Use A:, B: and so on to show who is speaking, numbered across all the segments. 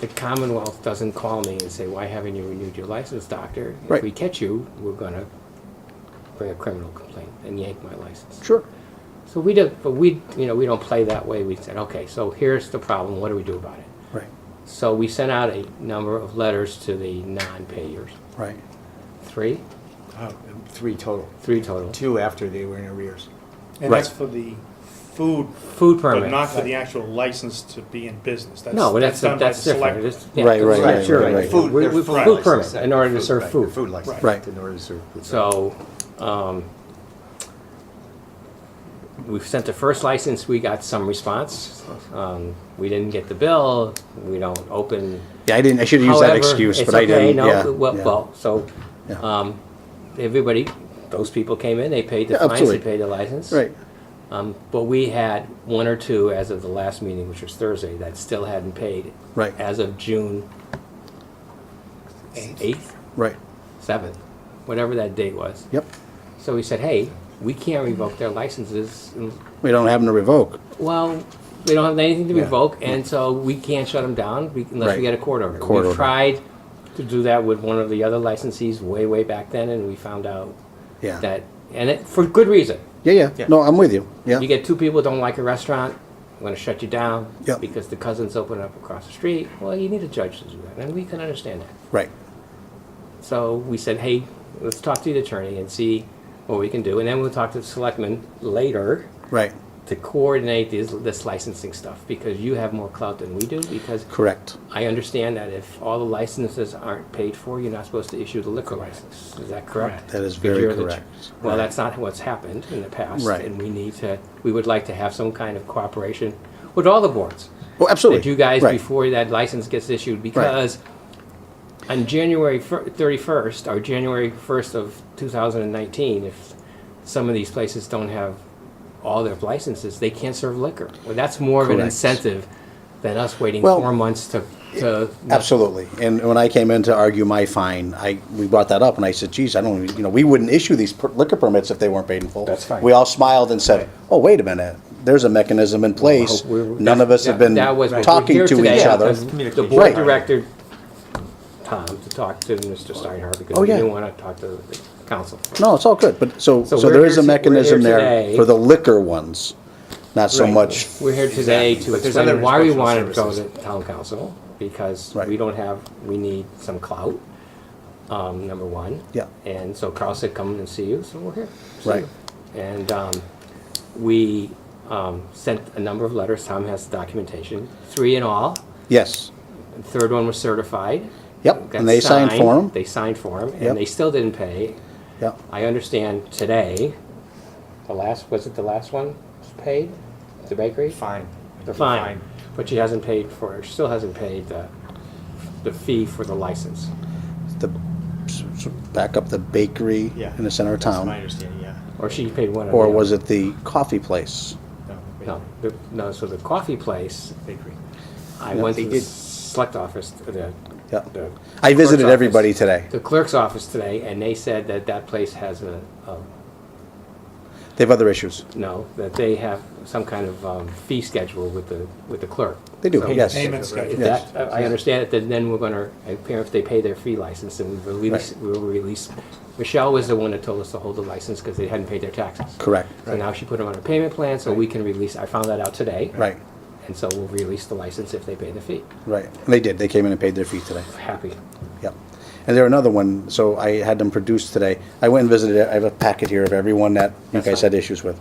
A: the Commonwealth doesn't call me and say, why haven't you renewed your license, doctor?
B: Right.
A: If we catch you, we're gonna bring a criminal complaint and yank my license.
B: Sure.
A: So we don't, but we, you know, we don't play that way. We said, okay, so here's the problem, what do we do about it?
B: Right,
A: So we sent out a number of letters to the non-payers,
B: right.
A: three,
C: Uh, Three total,
A: three total.
C: two after they were in arrears.
D: And that's for the food,
A: Food
D: but not
A: permits.
D: for the actual license to be in business. That's-
A: No, that's,
D: done by
A: that's
D: the
A: different.
D: select-
A: It's- yeah,
B: Right, right,
A: that's-
B: right,
A: sure,
B: right, right.
C: Food-
A: We-
C: they're
A: we-
C: food
A: Food
C: license.
A: permit, in order to
C: Food,
A: serve
C: right,
A: food.
C: Food license.
B: Right.
C: In order to serve food.
A: So, um, we've sent the first license, we got some response. Um, we didn't get the bill, we don't open.
B: Yeah, I didn't, I should have used that
A: However,
B: excuse,
A: it's
B: but I
A: okay,
B: didn't,
A: no,
B: yeah.
A: Well,
B: yeah.
A: well, so,
B: Yeah.
A: um, everybody, those people came in, they paid the
B: Yeah,
A: fines, they
B: absolutely.
A: paid the license.
B: Right,
A: Um, but we had one or two as of the last meeting, which was Thursday, that still hadn't paid.
B: Right.
A: As of June eighth,
B: right,
A: seventh, whatever that date was.
B: yep.
A: So we said, hey, we can't revoke their licenses. And,
B: We don't have them to revoke.
A: Well, they don't have anything to
B: Yeah.
A: revoke, and so we can't shut them down be- unless
B: Right.
A: we get a court order.
B: Court
A: we
B: order.
A: tried to do that with one of the other licensees way, way back then, and we found out
B: Yeah.
A: that, and it, for good reason.
B: Yeah, yeah, no, I'm with you, yeah.
A: You get two people don't like a restaurant, I'm going to shut you down
B: Yeah.
A: because the cousins open up across the street. Well, you need a judge to do that, and we can understand that.
B: Right,
A: So we said, hey, let's talk to the attorney and see what we can do, and then we'll talk to the selectmen later
B: right,
A: to coordinate this, this licensing stuff because you have more clout than we do because
B: correct.
A: I understand that if all the licenses aren't paid for, you're not supposed to issue the liquor license. Is that correct?
B: That is
A: Because
B: very
A: you're the ch-
B: correct.
A: Well,
B: Right.
A: that's not what's happened in the past.
B: Right.
A: And we need to, we would like to have some kind of cooperation with all the boards.
B: Well, Oh, absolutely.
A: That you guys,
B: Right.
A: before that license gets issued, because on January fir- 31st, or January 1st of 2019, if some of these places don't have all their licenses, they can't serve liquor. Well, that's more of an
B: Correct.
A: incentive than us waiting
B: Well,
A: four months to, to.
B: Absolutely. And when I came in to argue my fine, I, we brought that up and I said, geez, I don't, even- you know, we wouldn't issue these per- liquor permits if they weren't paid in full.
A: That's fine.
B: We all smiled and said, oh, wait a minute, there's a mechanism in place.
A: Well, we're-
B: None of us have been
A: That was what we're
B: talking
A: here
B: to
A: today
B: each other.
A: because The board
B: Right.
A: directed Tom to talk to Mr. Steinhardt because
B: Oh,
A: we
B: yeah.
A: didn't want to talk to the council.
B: No, it's all good, but so,
A: So
B: so
A: we're
B: there
A: here
B: is
A: to-
B: a
A: we're here
B: mechanism there
A: today.
B: for the liquor ones, not so
A: Right.
B: much,
A: We're here today
C: Exactly.
A: to
C: But there's other
A: explain why we
C: inspectional
A: wanted to go to
C: services.
A: town council, because
B: Right.
A: we don't have, we need some clout, um, number one.
B: Yeah.
A: And so Carl said, come and see you, so we're here. So-
B: right,
A: And, um, we, um, sent a number of letters, Tom has the documentation, three in all.
B: yes,
A: The third one was certified.
B: Yep,
A: Got
B: and they signed for 'em.
A: They signed for them,
B: Yep.
A: and they still didn't pay.
B: yeah,
A: I understand today, the last, was it the last one was paid? The bakery?
C: Fine.
A: The fine, but she hasn't paid for, she still hasn't paid the, the fee for the license.
B: the, s- s- back up the bakery
C: Yeah.
B: in the center of
C: That's my
B: town,
C: understanding, yeah.
A: Or she paid one of
B: or was it the coffee place?
A: No, the- no, so the coffee place,
C: Bakery.
A: I
B: No,
A: went
B: they
A: to the
B: did-
A: select office, the.
B: Yeah.
A: the
B: I visited
A: clerk's
B: everybody
A: office-
B: today.
A: The clerk's office today, and they said that that place has a, a
B: They have other issues.
A: No, that they have some kind of um, fee schedule with the, with the clerk.
B: They do,
A: So
B: yes.
D: Payment schedule.
A: If
B: Yes.
A: that, I I understand it, then- then we're gonna, if they pay their fee license, then we release, we'll release. Michelle was the one that told us to hold the license because they hadn't paid their taxes.
B: Correct,
A: So now she put them on a payment plan, so we can release, I found that out today.
B: right,
A: And so we'll release the license if they pay the fee.
B: right. And They did, they came in and paid their fee today.
A: Happy.
B: Yep. And there another one, so I had them produced today. I went and visited, it. I have a packet here of everyone that you
A: That's
B: guys
A: fine.
B: had issues with.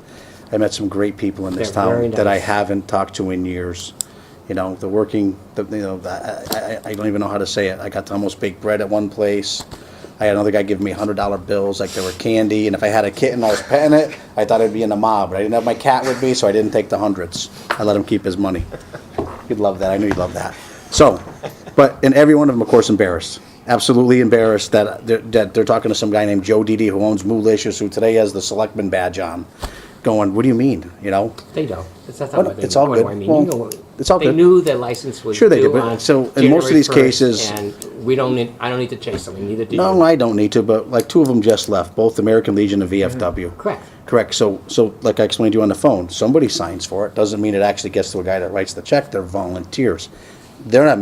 B: I met some great people in this
A: They're very
B: town that I
A: nice.
B: haven't talked to in years. You know, the working, the, you know, the- I, I, I don't even know how to say it. I got to almost bake bread at one place. I had another guy giving me hundred dollar bills like they were candy, and if I had a kitten, I was petting it. I thought I'd be in the mob, but I didn't have my cat with me, so I didn't take the hundreds. I let him keep his money. You'd love that. I knew you'd love that. So, but and every one of them, of course, embarrassed, absolutely embarrassed that they're, that they're talking to some guy named Joe Didi who owns Moolicious, who today has the selectman badge on, going, "What do you mean?" You know,
A: They don't. That's not
B: Well,
A: what they.
B: Oh, it's all
A: what do
B: good.
A: I mean?
B: Well,
A: You know what-
B: it's all
A: They
B: good.
A: knew the license was
B: Sure they
A: due
B: did, but
A: on
B: so in most of these
A: January
B: cases-
A: 1st, And we don't need, I don't need to chase them, neither do you.
B: no, I don't need to, but like two of them just left, both American Legion and VFW.
A: Mm-hmm. Correct.
B: Correct. So, so like I explained to you on the phone, somebody signs for it. Doesn't mean it actually gets to a guy that writes the check. They're volunteers. They're not